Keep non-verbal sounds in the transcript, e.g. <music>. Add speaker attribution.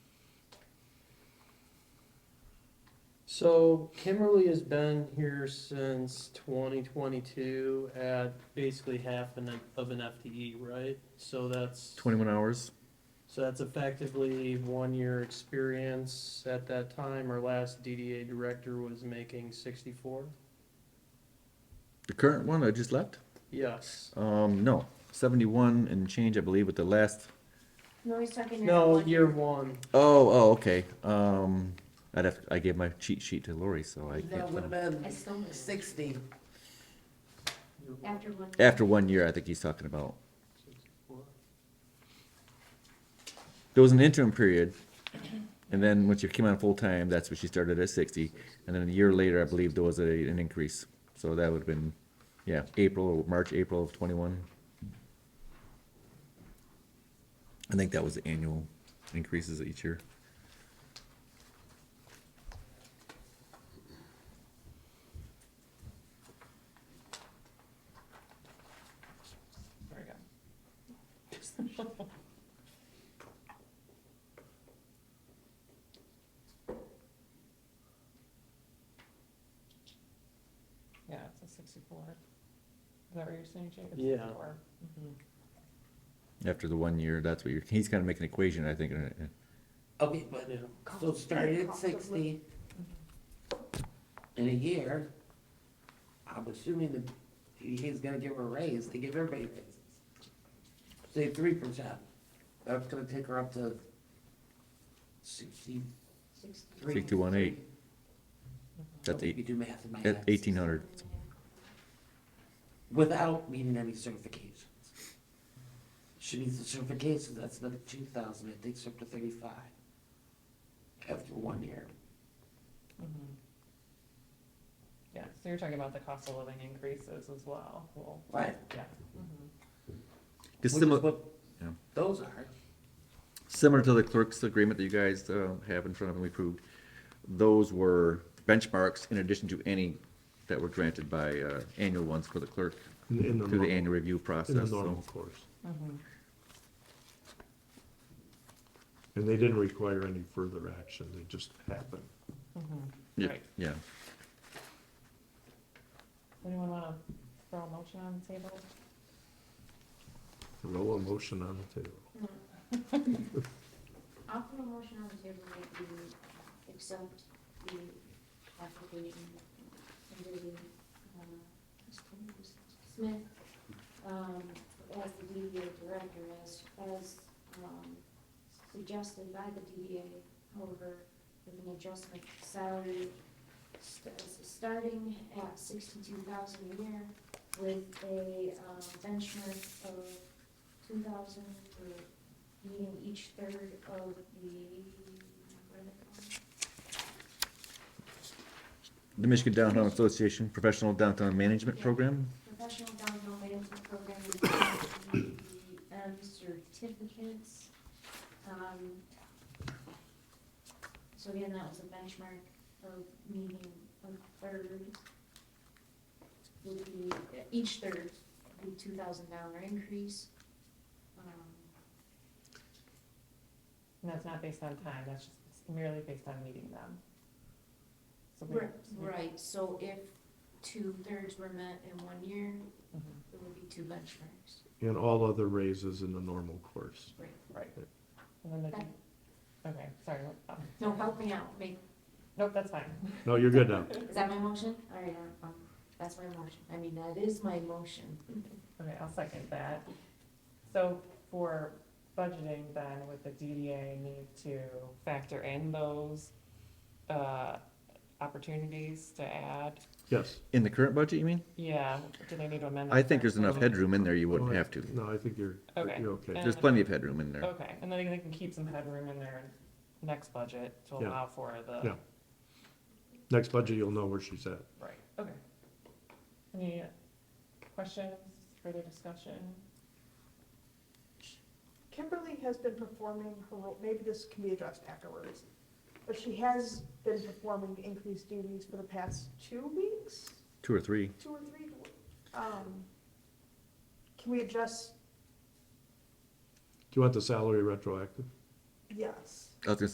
Speaker 1: So Kimberly has been here since twenty twenty-two at basically half an, of an FTE, right? So that's,
Speaker 2: Twenty-one hours.
Speaker 1: so that's effectively one-year experience. At that time, our last DDA director was making sixty-four?
Speaker 2: The current one I just left.
Speaker 1: Yes.
Speaker 2: Um, no, seventy-one and change, I believe, with the last.
Speaker 3: No, he's talking.
Speaker 1: No, year one.
Speaker 2: Oh, oh, okay. Um, I'd have. I gave my cheat sheet to Lori, so I
Speaker 4: That
Speaker 2: can't.
Speaker 4: would have
Speaker 2: tell.
Speaker 4: been
Speaker 3: After
Speaker 4: sixty.
Speaker 1: Year one,
Speaker 3: one.
Speaker 2: After one year, I think he's talking about.
Speaker 1: 64.
Speaker 2: There was an interim period, and then once you came on full time, that's when she started at sixty, and then a year later, I believe there was a, an increase. So that would have been, yeah, April or March, April of twenty-one. I think that was the annual increases each year.
Speaker 5: There we go. <laughs> Yeah, it's a sixty-four. Is that what you're saying, Jake? It's
Speaker 1: Yeah.
Speaker 5: 64. Mhm.
Speaker 2: After the one year, that's what you're, he's kind of making an equation, I think. uh, uh,
Speaker 4: Okay, but,
Speaker 1: Yeah.
Speaker 4: so started at sixty. In a year, I'm assuming that he- he's gonna give her a raise, they give everybody raises. Say three percent, that's gonna take her up to sixty-three.
Speaker 2: Sixty-one eight. That's
Speaker 4: If you
Speaker 2: eight,
Speaker 4: do math in my
Speaker 2: that's
Speaker 4: head.
Speaker 2: eighteen hundred.
Speaker 4: Without needing any certifications. She needs the certifications, that's another two thousand, it takes her up to thirty-five. After one year.
Speaker 5: Mhm. Yeah, so you're talking about the cost of living increases as well, well,
Speaker 4: Right.
Speaker 5: yeah.
Speaker 4: Which
Speaker 2: Just
Speaker 4: is
Speaker 2: similar,
Speaker 4: what
Speaker 2: Yeah.
Speaker 4: Those are.
Speaker 2: similar to the clerk's agreement that you guys uh, have in front of and we approved. Those were benchmarks in addition to any that were granted by uh, annual ones for the clerk
Speaker 6: In, in the
Speaker 2: through
Speaker 6: normal,
Speaker 2: the annual review
Speaker 6: in the
Speaker 2: process.
Speaker 6: normal
Speaker 2: So
Speaker 6: course.
Speaker 5: Mhm.
Speaker 6: And they didn't require any further action, they just happened.
Speaker 5: Mhm.
Speaker 2: Yeah,
Speaker 5: Right.
Speaker 2: yeah.
Speaker 5: Anyone wanna throw a motion on the table?
Speaker 6: Roll a motion on the table.
Speaker 3: I'll put a motion on the table that we accept the application under the, uh, Smith, um, as the DDA director, as, as, um, suggested by the DDA, however, with an adjustment to salary, st- starting at sixty-two thousand a year with a, um, benchmark of two thousand for being each third of the, what are they
Speaker 2: The Michigan Downtown Association Professional Downtown Management
Speaker 3: Yeah.
Speaker 2: Program.
Speaker 3: called? Professional downhill management program, EDM uh, certificates. Um, So again, that was a benchmark of meeting a third would be, uh, each third would be two thousand dollar increase. Um,
Speaker 5: And that's not based on time, that's just merely based on meeting them. So we-
Speaker 3: Right, right, so if two thirds were met in one year,
Speaker 5: Mhm.
Speaker 3: it would be two benchmarks.
Speaker 6: And all other raises in the normal course.
Speaker 5: Right. And then
Speaker 3: Okay.
Speaker 5: the, okay, sorry. what- um,
Speaker 3: No, help me out, make,
Speaker 5: Nope, that's fine.
Speaker 6: No, you're good now.
Speaker 3: is that my motion? All right, um, um, that's my motion, I mean, that is my motion.
Speaker 5: Okay, I'll second that. So for budgeting then, would the DDA need to factor in those, uh, opportunities to add?
Speaker 6: Yes.
Speaker 2: In the current budget, you mean?
Speaker 5: Yeah, do they need to amend?
Speaker 2: I
Speaker 5: the
Speaker 2: think there's enough
Speaker 5: curriculum?
Speaker 2: headroom in there you wouldn't
Speaker 6: No, I-
Speaker 2: have to.
Speaker 6: No, I think you're,
Speaker 5: Okay.
Speaker 6: you're okay.
Speaker 2: There's plenty of headroom in there.
Speaker 5: Okay, and then they can keep some headroom in their next budget to
Speaker 6: Yeah.
Speaker 5: allow for the,
Speaker 6: Yeah. Next budget, you'll know where she's at.
Speaker 5: right, okay. Any questions, further discussion?
Speaker 7: Kimberly has been performing her role, maybe this can be addressed afterwards, but she has been performing increased duties for the past two weeks,
Speaker 2: Two or three.
Speaker 7: two or three. Um, Can we adjust,
Speaker 6: Do you want the salary retroactive?
Speaker 7: yes.
Speaker 2: I was gonna